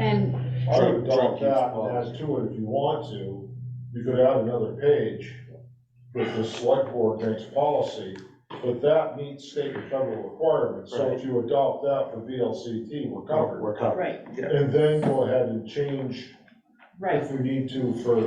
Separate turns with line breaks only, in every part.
And
I would
Truck
drop
keeps
that and
closed.
add to it if you want to. You could add another page with the select board makes policy, but that meets state and federal requirements. So if you adopt that for VLCT, we're covered.
We're covered.
Right,
And then go ahead and change
right,
if we need to for,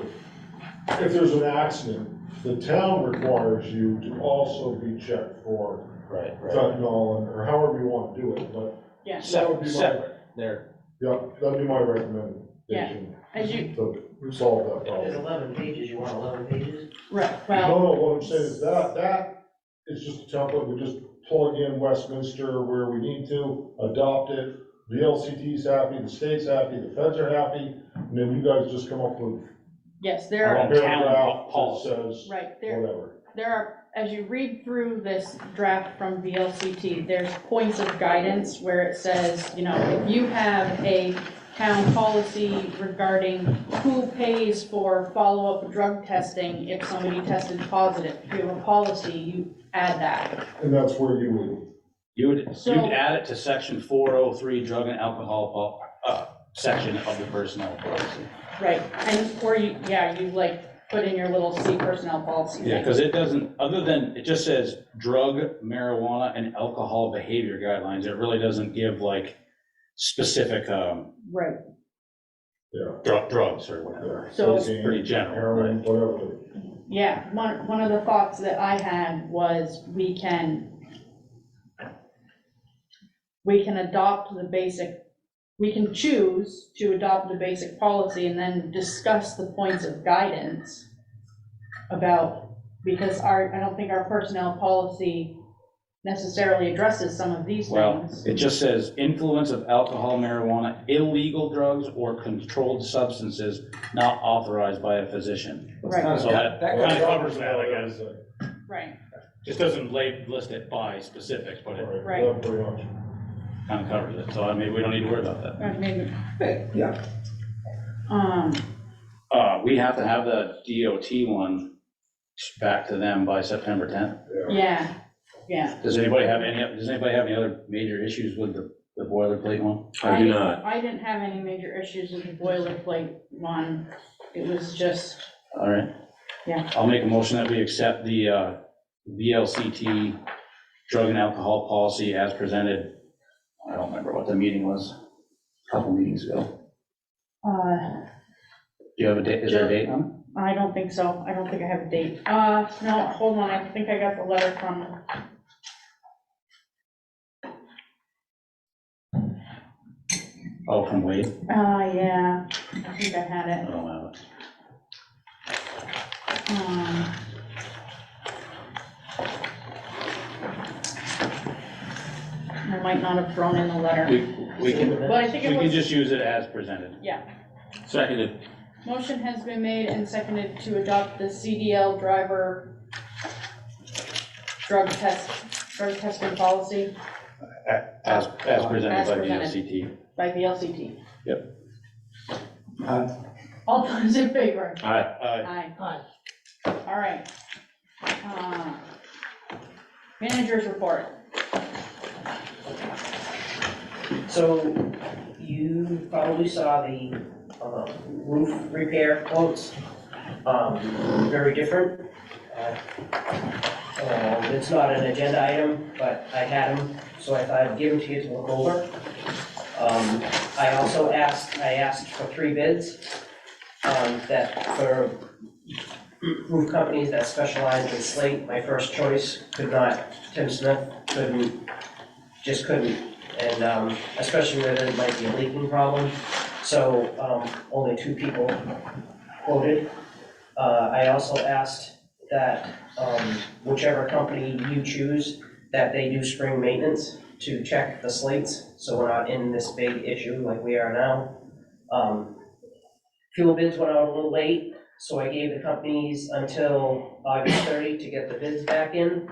if there's an accident, the town requires you to also be checked for
Right, right.
fentanyl and- or however you want to do it, but
yeah.
that would
Separate,
be my,
separate, there.
yeah, that'd be my recommendation
As you,
to solve that problem.
There's eleven pages, you want eleven pages?
right,
No,
well,
no, what I'm saying is that, that is just a template, we just plug in Westminster where we need to, adopt it. The LCT's happy, the state's happy, the feds are happy, and then you guys just come up with
yes,
a
there
Our
are,
own town
paragraph that
policy.
says
right, there,
whatever.
there are, as you read through this draft from VLCT, there's points of guidance where it says, you know, if you have a town policy regarding who pays for follow-up drug testing if somebody tested positive, if you have a policy, you add that.
And that's where you would,
You would,
So-
you'd add it to section four oh three, drug and alcohol, po- uh, section of the personnel policy.
Right, and, or you, yeah, you like put in your little C personnel policy
Yeah,
thing.
because it doesn't, other than, it just says drug, marijuana, and alcohol behavior guidelines. It really doesn't give like specific, um,
Right,
yeah,
drug, drugs or whatever.
So-
It's pretty general, right?
heroin, whatever.
Yeah, one, one of the thoughts that I had was we can, we can adopt the basic, we can choose to adopt the basic policy and then discuss the points of guidance about, because our, I don't think our personnel policy necessarily addresses some of these
Well,
things.
It just says influence of alcohol, marijuana, illegal drugs, or controlled substances not authorized by a physician.
Right,
So that, that kind of covers that, I guess.
guess.
right,
Just doesn't lay, list it by specifics, but it
Right.
Yeah, pretty much.
kind of covers it. So I mean, we don't need to worry about that.
Uh, maybe,
Yeah,
um,
Uh, we have to have the DOT one back to them by September tenth.
yeah, yeah.
Does anybody have any, does anybody have any other major issues with the, the boilerplate one?
I do
didn't-
not.
I didn't have any major issues with the boilerplate one. It was just,
All right.
Yeah.
I'll make a motion that we accept the, uh, VLCT drug and alcohol policy as presented. I don't remember what the meeting was, a couple meetings ago.
uh,
Do you have a date, is there a date on
I don't think so. I don't think I have a date. Uh, no, hold on, I think I got the letter from.
it? Oh, from Wade?
Uh, yeah, I think I had
I
it.
don't have it.
Um, I might not have thrown in the letter,
We, we can,
but I
we
think it
can
was,
just use it as presented.
Seconded.
motion has been made and seconded to adopt the CDL driver drug test, drug testing policy.
As, as presented
As
by
presented.
VLCT.
by VLCT. Yep.
Aye.
All those in favor?
All right, uh,
Aye.
Aye.
All right. Uh, Managers report.
So you probably saw the um, roof repair quotes, um, very different. Uh, um, It's not an agenda item, but I had them, so I thought I'd give them to you to look over. Um, I also asked, I asked for three bids, um, that for roof companies that specialize in slate, my first choice could not, Tim Smith couldn't, just couldn't and um, especially where there might be a leaking problem. So um, only two people quoted. Uh, I also asked that um, whichever company you choose, that they do spring maintenance to check the slates, so we're not in this big issue like we are now. Um, Fuel bids went out a little late, so I gave the companies until August 30 to get the bids back in,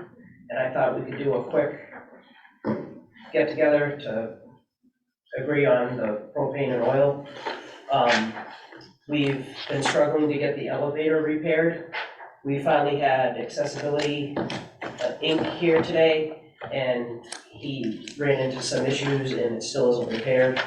and I thought we could do a quick get together to agree on the propane and oil. Um, We've been struggling to get the elevator repaired. We finally had accessibility uh, Inc. here today, and he ran into some issues and it still isn't repaired.